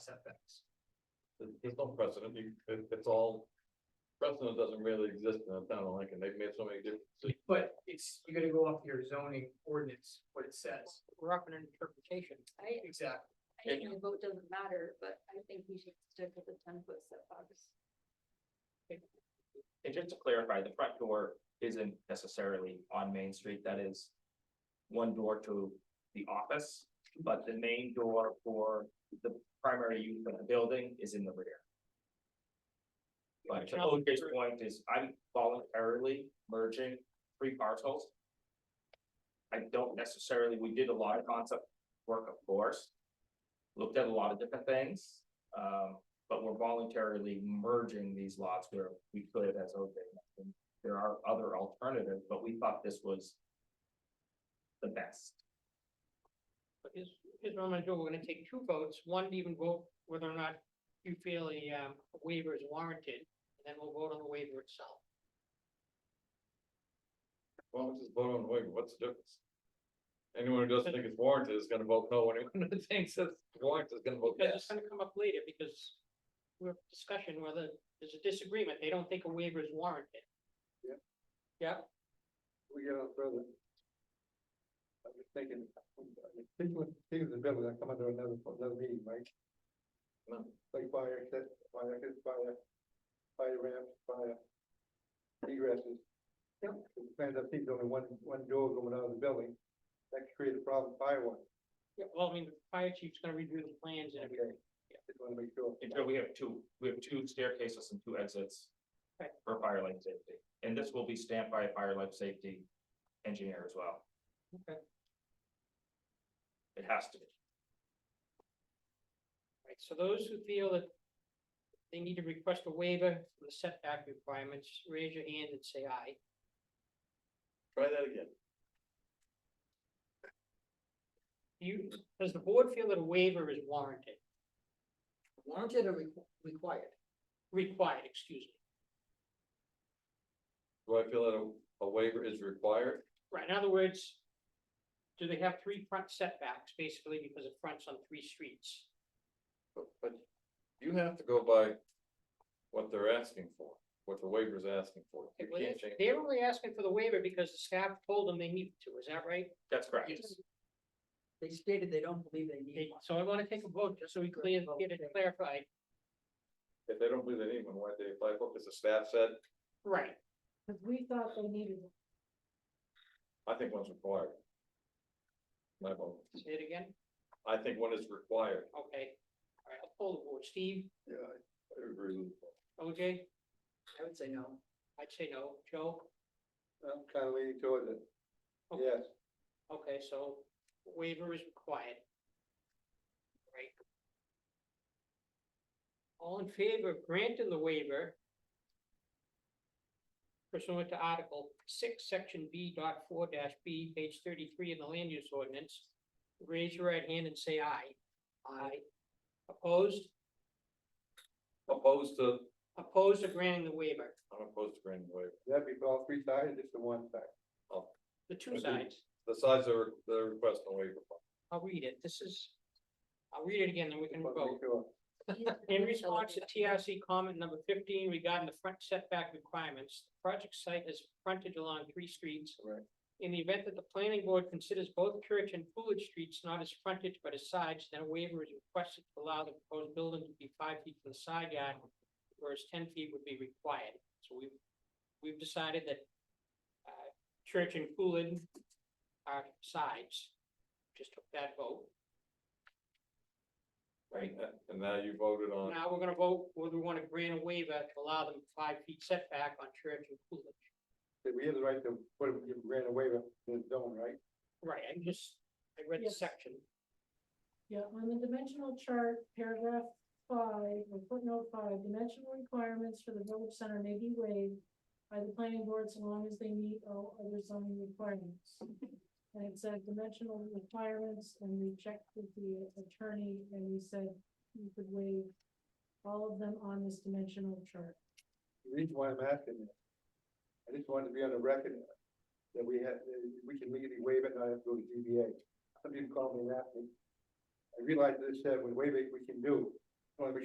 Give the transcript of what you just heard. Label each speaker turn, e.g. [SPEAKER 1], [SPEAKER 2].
[SPEAKER 1] setbacks.
[SPEAKER 2] There's- There's no precedent, You- it- it's all, precedent doesn't really exist in the town of Lincoln, they've made so many different decisions.
[SPEAKER 1] But it's, you gotta go off your zoning ordinance, what it says.
[SPEAKER 3] We're up in an interpretation.
[SPEAKER 4] I,
[SPEAKER 1] Exactly.
[SPEAKER 4] I think the vote doesn't matter, but I think we should stick with the ten foot setbacks.
[SPEAKER 5] And just to clarify, the front door isn't necessarily on Main Street, that is one door to the office, but the main door for the primary use of the building is in the rear. But to OJ's point is, I'm voluntarily merging three parcels. I don't necessarily, we did a lot of concept work, of course, looked at a lot of different things, um, but we're voluntarily merging these lots where we could as OJ. mentioned. There are other alternatives, but we thought this was the best.
[SPEAKER 3] But here's, here's what I'm gonna do, we're gonna take two votes, one to even vote whether or not you feel a, um, waiver is warranted, and then we'll vote on the waiver itself.
[SPEAKER 2] Well, let's just vote on the waiver, what's the difference? Anyone who doesn't think it's warranted is gonna vote no, anyone who thinks it's warranted is gonna vote
[SPEAKER 3] Because it's
[SPEAKER 2] yes.
[SPEAKER 3] gonna come up later, because we're discussion whether there's a disagreement, they don't think a waiver is warranted.
[SPEAKER 6] Yep.
[SPEAKER 3] Yeah,
[SPEAKER 6] we get on further. I'm just thinking, things with, things with building, I come under another, another meeting, Mike.
[SPEAKER 2] No.
[SPEAKER 6] Like fire, that, fire, that fire, fire ramp, fire. Egresses. Yep. Plans up, things only one, one door going out of the building, that could create a problem, fire one,
[SPEAKER 3] yeah, well, I mean, the fire chief's gonna review the plans and everything.
[SPEAKER 6] okay? Just wanna make sure.
[SPEAKER 5] Until we have two, we have two staircases and two exits.
[SPEAKER 3] Okay.
[SPEAKER 5] For fire life safety, and this will be stamped by a fire life safety engineer as well.
[SPEAKER 3] Okay.
[SPEAKER 5] It has to be.
[SPEAKER 3] Right, so those who feel that they need to request a waiver from the setback requirements, raise your hand and say aye.
[SPEAKER 2] Try that again.
[SPEAKER 3] You, does the board feel that a waiver is warranted,
[SPEAKER 7] Warranted or requ- required?
[SPEAKER 3] required, excuse me?
[SPEAKER 2] Do I feel that a, a waiver is required?
[SPEAKER 3] Right, in other words, do they have three front setbacks, basically because of fronts on three streets?
[SPEAKER 2] But, but you have to go by what they're asking for, what the waiver's asking for. You
[SPEAKER 3] Okay, well,
[SPEAKER 2] can't change.
[SPEAKER 3] They're only asking for the waiver because the staff told them they needed to, is that right?
[SPEAKER 5] That's correct.
[SPEAKER 7] They stated they don't believe they need
[SPEAKER 3] They-
[SPEAKER 7] one.
[SPEAKER 3] So I wanna take a vote, just so we clear, get it clarified.
[SPEAKER 2] If they don't believe in anyone, why they apply for, because the staff said,
[SPEAKER 3] Right,
[SPEAKER 4] Cause we thought they needed
[SPEAKER 2] I think one's required. My vote,
[SPEAKER 3] say it again,
[SPEAKER 2] I think one is required.
[SPEAKER 3] okay, all right, I'll pull the board, Steve,
[SPEAKER 6] Yeah,
[SPEAKER 2] I agree with you.
[SPEAKER 3] OJ,
[SPEAKER 7] I would say no.
[SPEAKER 3] I'd say no, Joe?
[SPEAKER 6] I'm kinda leaning towards it,
[SPEAKER 3] Okay.
[SPEAKER 6] yes.
[SPEAKER 3] Okay, so waiver is required. Right. All in favor of granting the waiver pursuant to Article six, Section B dot four dash B, page thirty-three in the land use ordinance, raise your right hand and say aye. Aye. Opposed?
[SPEAKER 2] Opposed to,
[SPEAKER 3] Opposed to granting the waiver,
[SPEAKER 2] I'm opposed to granting the waiver.
[SPEAKER 6] That'd be all three sides, just the one side.
[SPEAKER 3] the two
[SPEAKER 2] Agreed.
[SPEAKER 3] sides.
[SPEAKER 2] The size of the request on waiver.
[SPEAKER 3] I'll read it, this is, I'll read it again, then we
[SPEAKER 6] Just
[SPEAKER 3] can
[SPEAKER 6] wanna
[SPEAKER 3] vote.
[SPEAKER 6] make sure.
[SPEAKER 3] In response to TRC comment number fifteen regarding the front setback requirements, the project site has frontage along three streets.
[SPEAKER 6] Right.
[SPEAKER 3] In the event that the planning board considers both Church and Coolidge Streets not as frontage but as sides, then a waiver is requested to allow the proposed building to be five feet from the side yard, whereas ten feet would be required. So we've, we've decided that uh, Church and Coolidge are sides. Just took that vote.
[SPEAKER 2] Right. And now you voted on,
[SPEAKER 3] Now we're gonna vote whether we wanna grant a waiver to allow them five feet setback on Church and Coolidge.
[SPEAKER 6] That we have the right to, put it give grant a waiver in the zone, right?
[SPEAKER 3] Right, I just, I read the
[SPEAKER 4] Yes.
[SPEAKER 3] section.
[SPEAKER 4] Yeah, on the dimensional chart, paragraph five, or footnote five, dimensional requirements for the village center may be waived by the planning board so long as they meet all other zoning requirements. And it said dimensional requirements, and we checked with the attorney, and we said you could waive all of them on this dimensional chart.
[SPEAKER 6] The reason why I'm asking this, I just wanted to be on the record that we had, that we can legally waive it, and not have to go to ZBA. Some people call me and ask me. I realize this, that with waive it, we can do, wanna be